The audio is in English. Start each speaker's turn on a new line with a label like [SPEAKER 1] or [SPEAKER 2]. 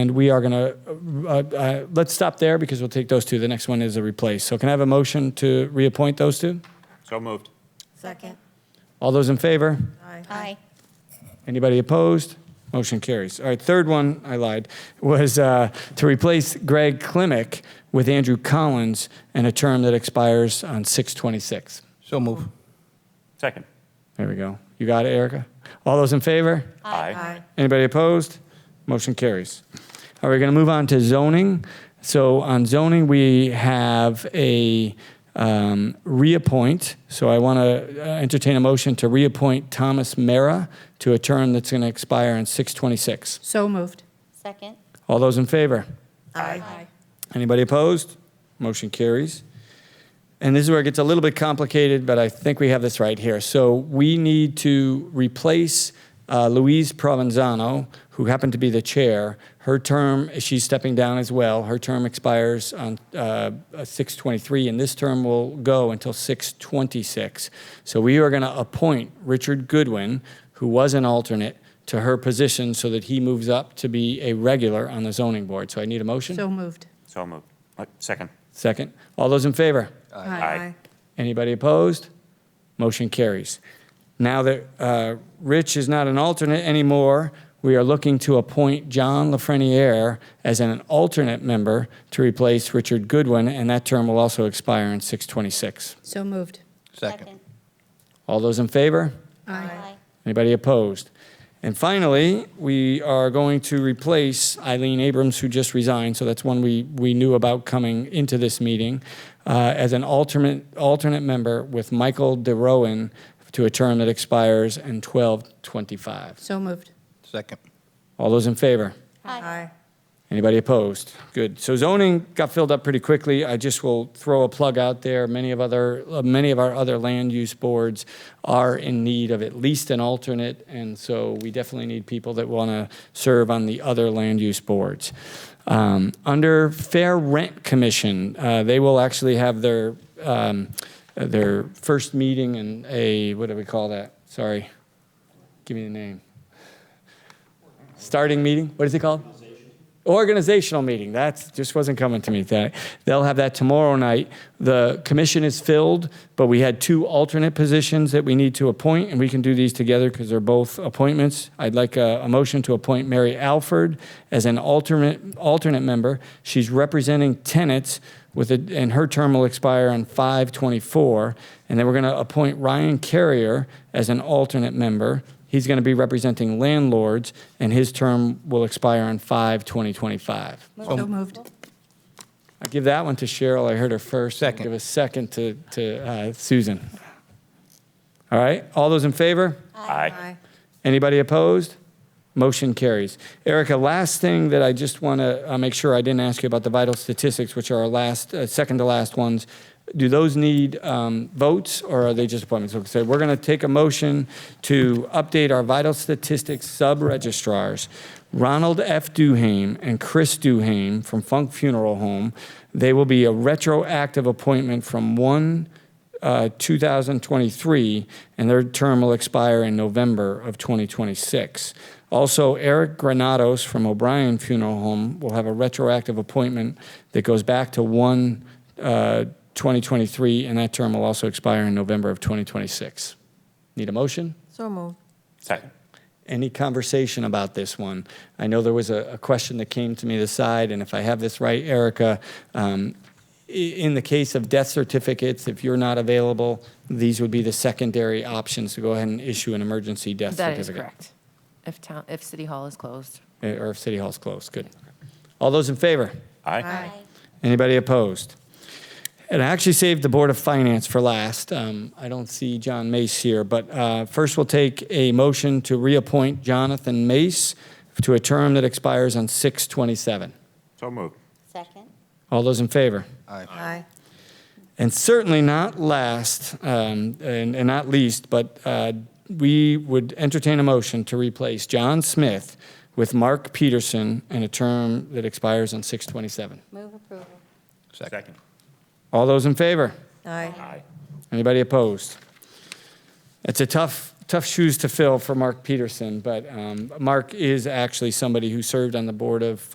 [SPEAKER 1] And we are going to, uh, uh, let's stop there because we'll take those two. The next one is a replace. So can I have a motion to reappoint those two?
[SPEAKER 2] So moved.
[SPEAKER 3] Second.
[SPEAKER 1] All those in favor?
[SPEAKER 4] Aye.
[SPEAKER 1] Anybody opposed? Motion carries. All right, third one, I lied, was uh, to replace Greg Klimick with Andrew Collins in a term that expires on 626.
[SPEAKER 5] So move.
[SPEAKER 2] Second.
[SPEAKER 1] There we go. You got it, Erica? All those in favor?
[SPEAKER 2] Aye.
[SPEAKER 1] Anybody opposed? Motion carries. All right, we're going to move on to zoning. So on zoning, we have a um, reappoint. So I want to entertain a motion to reappoint Thomas Mara to a term that's going to expire on 626.
[SPEAKER 3] So moved.
[SPEAKER 4] Second.
[SPEAKER 1] All those in favor?
[SPEAKER 3] Aye.
[SPEAKER 1] Anybody opposed? Motion carries. And this is where it gets a little bit complicated, but I think we have this right here. So we need to replace uh, Louise Provenzano, who happened to be the chair. Her term, she's stepping down as well. Her term expires on uh, 623, and this term will go until 626. So we are going to appoint Richard Goodwin, who was an alternate, to her position so that he moves up to be a regular on the zoning board. So I need a motion.
[SPEAKER 3] So moved.
[SPEAKER 2] So moved. Uh, Second.
[SPEAKER 1] Second. All those in favor?
[SPEAKER 2] Aye.
[SPEAKER 1] Anybody opposed? Motion carries. Now that uh, Rich is not an alternate anymore, we are looking to appoint John Lafreniere as an alternate member to replace Richard Goodwin, and that term will also expire in 626.
[SPEAKER 3] So moved.
[SPEAKER 5] Second.
[SPEAKER 1] All those in favor?
[SPEAKER 4] Aye.
[SPEAKER 1] Anybody opposed? And finally, we are going to replace Eileen Abrams, who just resigned, so that's one we, we knew about coming into this meeting, uh, as an alternate, alternate member with Michael DeRowan to a term that expires in 1225.
[SPEAKER 3] So moved.
[SPEAKER 5] Second.
[SPEAKER 1] All those in favor?
[SPEAKER 3] Aye.
[SPEAKER 1] Anybody opposed? Good. So zoning got filled up pretty quickly. I just will throw a plug out there. Many of other, uh, many of our other land use boards are in need of at least an alternate, and so we definitely need people that want to serve on the other land use boards. Um, under Fair Rent Commission, uh, they will actually have their um, their first meeting and a what do we call that? Sorry, give me the name. Starting meeting. What is it called? Organizational meeting, that just wasn't coming to me. That They'll have that tomorrow night. The commission is filled, but we had two alternate positions that we need to appoint, and we can do these together because they're both appointments. I'd like a, a motion to appoint Mary Alford as an alternate, alternate member. She's representing tenants with, a- and her term will expire on 524. And then we're going to appoint Ryan Carrier as an alternate member. He's going to be representing landlords, and his term will expire on 5 2025.
[SPEAKER 3] So moved.
[SPEAKER 1] I give that one to Cheryl. I heard her first. I'll
[SPEAKER 5] Second.
[SPEAKER 1] Give a second to, to uh, Susan. All right. All those in favor?
[SPEAKER 2] Aye.
[SPEAKER 1] Anybody opposed? Motion carries. Erica, last thing that I just want to make sure I didn't ask you about the vital statistics, which are our last, uh, second to last ones. Do those need um, votes or are they just appointments? Okay, So we're going to take a motion to update our vital statistics sub-registrars, Ronald F. Duhame and Chris Duhame from Funk Funeral Home. They will be a retroactive appointment from 1 uh, 2023, and their term will expire in November of 2026. Also, Eric Granados from O'Brien Funeral Home will have a retroactive appointment that goes back to 1 uh, 2023, and that term will also expire in November of 2026. Need a motion?
[SPEAKER 3] So moved.
[SPEAKER 2] Second.
[SPEAKER 1] any conversation about this one. I know there was a, a question that came to me this side, and if I have this right, Erica, um, i- in the case of death certificates, if you're not available, these would be the secondary options to go ahead and issue an emergency death
[SPEAKER 6] That
[SPEAKER 1] certificate.
[SPEAKER 6] is correct. If town, if City Hall is closed.
[SPEAKER 1] Eh, Or if City Hall's closed. Good. All those in favor?
[SPEAKER 2] Aye.
[SPEAKER 1] Anybody opposed? And I actually saved the Board of Finance for last. Um, I don't see John Mace here, but uh, first we'll take a motion to reappoint Jonathan Mace to a term that expires on 627.
[SPEAKER 2] So moved.
[SPEAKER 4] Second.
[SPEAKER 1] All those in favor?
[SPEAKER 5] Aye.
[SPEAKER 3] Aye.
[SPEAKER 1] And certainly not last, um, and, and not least, but uh, we would entertain a motion to replace John Smith with Mark Peterson in a term that expires on 627.
[SPEAKER 4] Move approval.
[SPEAKER 5] Second.
[SPEAKER 1] All those in favor?
[SPEAKER 3] Aye.
[SPEAKER 2] Aye.
[SPEAKER 1] Anybody opposed? It's a tough, tough shoes to fill for Mark Peterson, but um, Mark is actually somebody who served on the board of